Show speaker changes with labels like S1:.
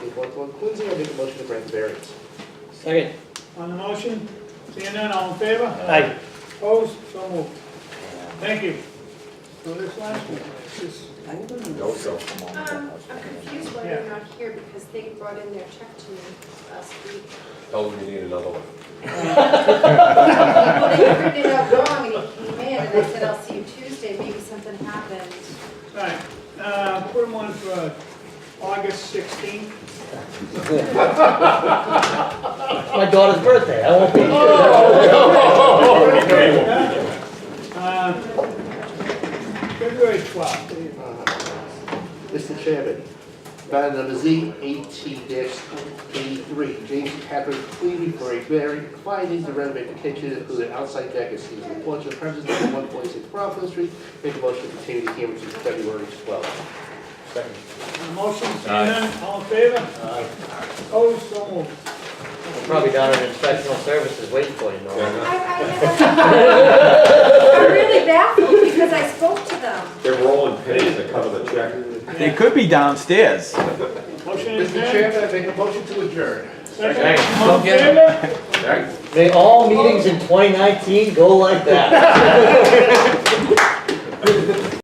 S1: with one-to-one cleansing, I make a motion to grant the variance.
S2: Second.
S3: On the motion, seeing none, all in favor?
S2: Aye.
S3: Opposed, so moved. Thank you. So this last one, this is,
S4: Um, I'm confused why they're not here because they brought in their check to me last week.
S5: Tell them you need another one.
S4: Well, they printed it out wrong and it came in and I said, I'll see you Tuesday, maybe something happened.
S3: all right, uh, put them on for August sixteenth.
S2: It's my daughter's birthday, I won't be here.
S3: February Uh, twelfth.
S1: Uh, Mr. Chairman, matter number Z eighteen eighty-three, James Patrick Cleary for a variance finding to renovate the kitchen, include an outside deck and seasonal porch on premises number one forty-six Rockland Street. Make a motion to continue the hearing to February twelfth.
S3: On the motion, seeing none, all in favor? Opposed, so moved.
S2: I'm Probably down at inspectional services waiting for you, Norm.
S4: I, I am, I'm really baffled because I spoke to them.
S5: They're rolling pennies that cover the check.
S6: They could be downstairs.
S3: Motion is
S1: Mr.
S3: there.
S1: Chairman, I make a motion to adjourn.
S3: Second, all in favor?
S2: May all meetings in 2019 go like that.